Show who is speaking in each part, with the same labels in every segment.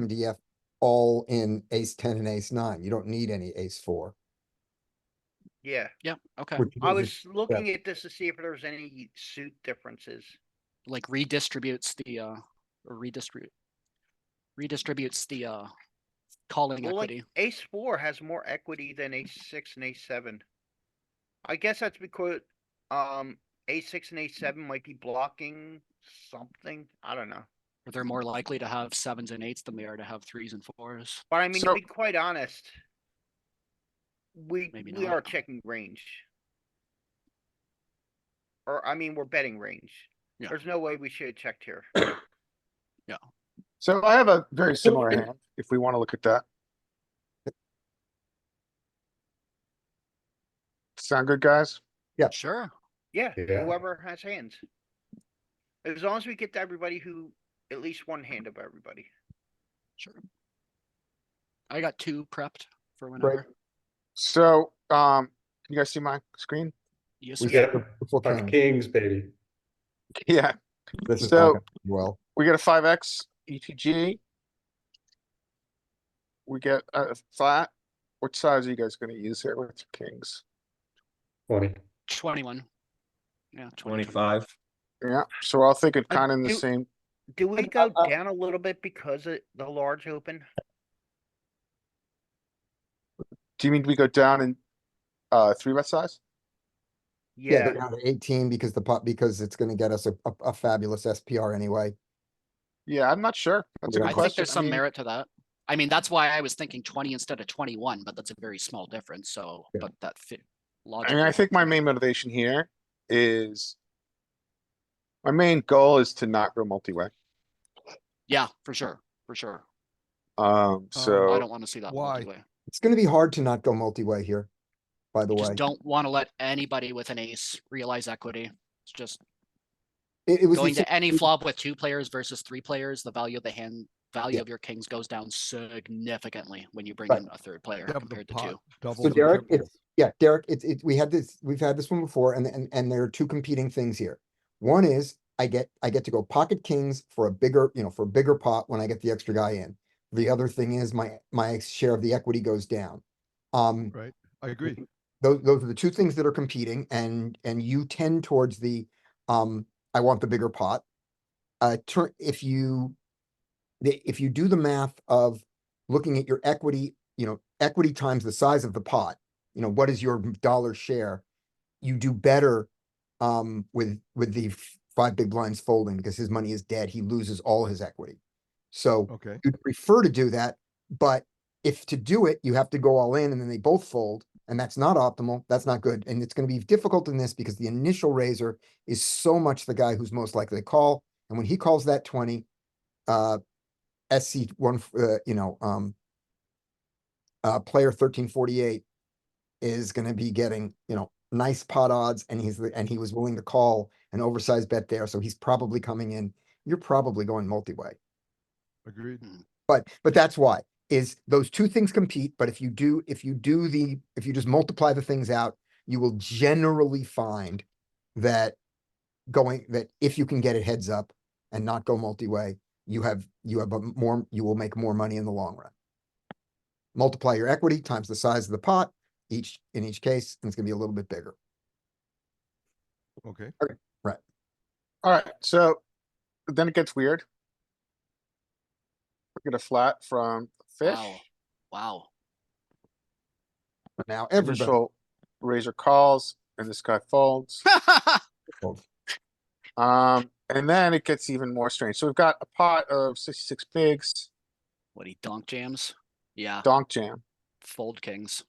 Speaker 1: MDF all in ace ten and ace nine. You don't need any ace four.
Speaker 2: Yeah,
Speaker 3: Yeah, okay.
Speaker 1: which
Speaker 2: I
Speaker 1: is-
Speaker 2: was looking at this to see if there was any suit differences.
Speaker 3: Like redistributes the uh or redistribute redistributes the uh calling
Speaker 2: Well, like
Speaker 3: equity.
Speaker 2: ace four has more equity than ace six and ace seven. I guess that's because, um, ace six and ace seven might be blocking something. I don't know.
Speaker 3: or They're more likely to have sevens and eights than they are to have threes and fours.
Speaker 2: But I mean, to
Speaker 3: So-
Speaker 2: be quite honest, we,
Speaker 3: Maybe
Speaker 2: we
Speaker 3: not.
Speaker 2: are checking range. Or, I mean, we're betting range.
Speaker 3: Yeah.
Speaker 2: There's no way we should have checked here.
Speaker 4: So I have a very similar hand, if we wanna look at that. Sound good, guys?
Speaker 3: Sure.
Speaker 2: Yeah,
Speaker 5: Yeah.
Speaker 2: whoever has hands. As long as we get to everybody who, at least one hand of everybody.
Speaker 3: Sure. I got two prepped for whenever.
Speaker 4: So, um, can you guys see my screen?
Speaker 3: Yes,
Speaker 5: We
Speaker 3: sir.
Speaker 5: got
Speaker 1: Before
Speaker 5: five
Speaker 1: king,
Speaker 5: kings, baby.
Speaker 4: Yeah,
Speaker 1: this is
Speaker 4: So-
Speaker 1: not gonna end well,
Speaker 4: we get a five X E ETG. We get a flat. Which size are you guys gonna use here with your kings?
Speaker 5: Twenty.
Speaker 3: Twenty-one. Yeah, 20.
Speaker 6: Twenty-five.
Speaker 4: Yeah, so I'll think it
Speaker 2: I
Speaker 4: kinda in the
Speaker 2: do-
Speaker 4: same,
Speaker 2: Do we
Speaker 4: And,
Speaker 2: go
Speaker 4: uh,
Speaker 2: down a little bit because of the large open?
Speaker 4: do you mean we go down in, uh, three bet size?
Speaker 1: yeah,
Speaker 2: Yeah,
Speaker 1: they're down to eighteen because the pot, because it's gonna get us a, a- a fabulous SPR anyway.
Speaker 4: Yeah, I'm not sure. That's a
Speaker 1: Yeah.
Speaker 4: good
Speaker 3: I
Speaker 4: question.
Speaker 3: think there's some
Speaker 4: mean-
Speaker 3: merit to that. I mean, that's why I was thinking twenty instead of twenty-one, but that's a very small difference, so,
Speaker 1: Yeah.
Speaker 3: but that fit
Speaker 4: I mean, I
Speaker 3: logically.
Speaker 4: think my main motivation here is. My main goal is to not go multi-way,
Speaker 3: Yeah, for sure, for sure. Um,
Speaker 4: um,
Speaker 3: I don't
Speaker 4: so,
Speaker 3: wanna see that.
Speaker 7: why?
Speaker 3: multi-way.
Speaker 1: It's gonna be hard to not go multi-way here, by the
Speaker 3: You
Speaker 1: way.
Speaker 3: just don't wanna let anybody with an ace realize equity. It's just
Speaker 1: It, it was, the
Speaker 3: going
Speaker 1: same-
Speaker 3: to any flop with two players versus three players, the value of the hand, value
Speaker 1: Yeah.
Speaker 3: of your kings goes down significantly when you bring
Speaker 1: Right.
Speaker 3: in a third player
Speaker 7: Double the
Speaker 3: compared to
Speaker 7: pot,
Speaker 3: two.
Speaker 7: double
Speaker 1: so
Speaker 7: the
Speaker 1: Derek,
Speaker 7: triple.
Speaker 1: it's, yeah, Derek, it's, it, we had this, we've had this one before and, and, and there are two competing things here. One is I get, I get to go pocket kings for a bigger, you know, for a bigger pot when I get the extra guy in. The other thing is my, my share of the equity goes down. Um,
Speaker 7: Right, I agree.
Speaker 1: those those are the two things that are competing and and you tend towards the um I want the bigger pot. Uh turn if you the if you do the math of looking at your equity, you know, equity times the size of the pot, you know, what is your dollar share? You do better um with with the f- five big blinds folding because his money is dead. He loses all his equity. So
Speaker 7: Okay,
Speaker 1: you'd prefer to do that, but if to do it, you have to go all in and then they both fold, and that's not optimal, that's not good, and it's gonna be difficult in this because the initial raiser is so much the guy who's most likely to call, and when he calls that twenty, uh, SC one, uh, you know, um, uh, player thirteen forty-eight is gonna be getting, you know, nice pot odds, and he's, the- and he was willing to call an oversized bet there, so he's probably coming in, you're probably going multi-way.
Speaker 7: agreed.
Speaker 1: But, but that's why, is those two things compete, but if you do, if you do the, if you just multiply the things out, you will generally find that going, that if you can get it heads up and not go multi-way, you have, you have a more, you will make more money in the long run. Multiply your equity times the size of the pot, each, in each case, and it's gonna be a little bit bigger.
Speaker 7: Okay,
Speaker 4: alright, so. Then it gets weird. We get a flat from fish,
Speaker 3: Wow, wow.
Speaker 1: Now, everybody,
Speaker 4: initial razor calls, and this guy folds. Um, and then it gets even more strange. So we've got a pot of sixty-six bigs,
Speaker 3: What he donk jams? Yeah,
Speaker 4: donk jam.
Speaker 3: fold kings.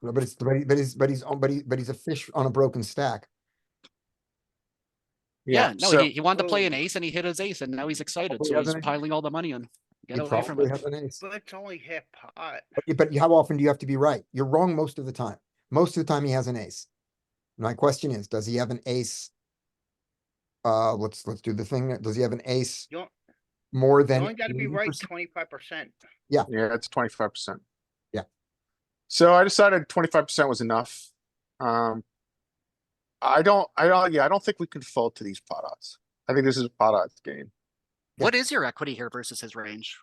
Speaker 1: but it's, but he- but he's, but he's, on- but he, but he's a fish on a broken stack.
Speaker 3: Yeah, no,
Speaker 4: so-
Speaker 3: he, he wanted to play an
Speaker 2: Oh.
Speaker 3: ace and he hit his ace and now he's excited,
Speaker 1: Probably
Speaker 3: so
Speaker 1: has
Speaker 3: he's
Speaker 1: an ace.
Speaker 3: piling all the money in.
Speaker 1: He
Speaker 3: Get away from
Speaker 1: probably
Speaker 3: it.
Speaker 1: has an ace.
Speaker 2: but it's only half pot.
Speaker 1: But- But how often do you have to be right? You're wrong most of the time. Most of the time he has an ace. My question is, does he have an ace? Uh, let's, let's do the thing. Does he have an ace
Speaker 2: You don't,
Speaker 1: more
Speaker 2: you
Speaker 1: than?
Speaker 2: only gotta be right
Speaker 1: 80%?
Speaker 2: twenty-five percent.
Speaker 4: Yeah, it's twenty-five percent.
Speaker 1: Yeah.
Speaker 4: So I decided twenty-five percent was enough. Um. I don't, I don't, yeah, I don't think we can fold to these pot odds. I think this is a pot odds game.
Speaker 3: What is your equity here versus his range?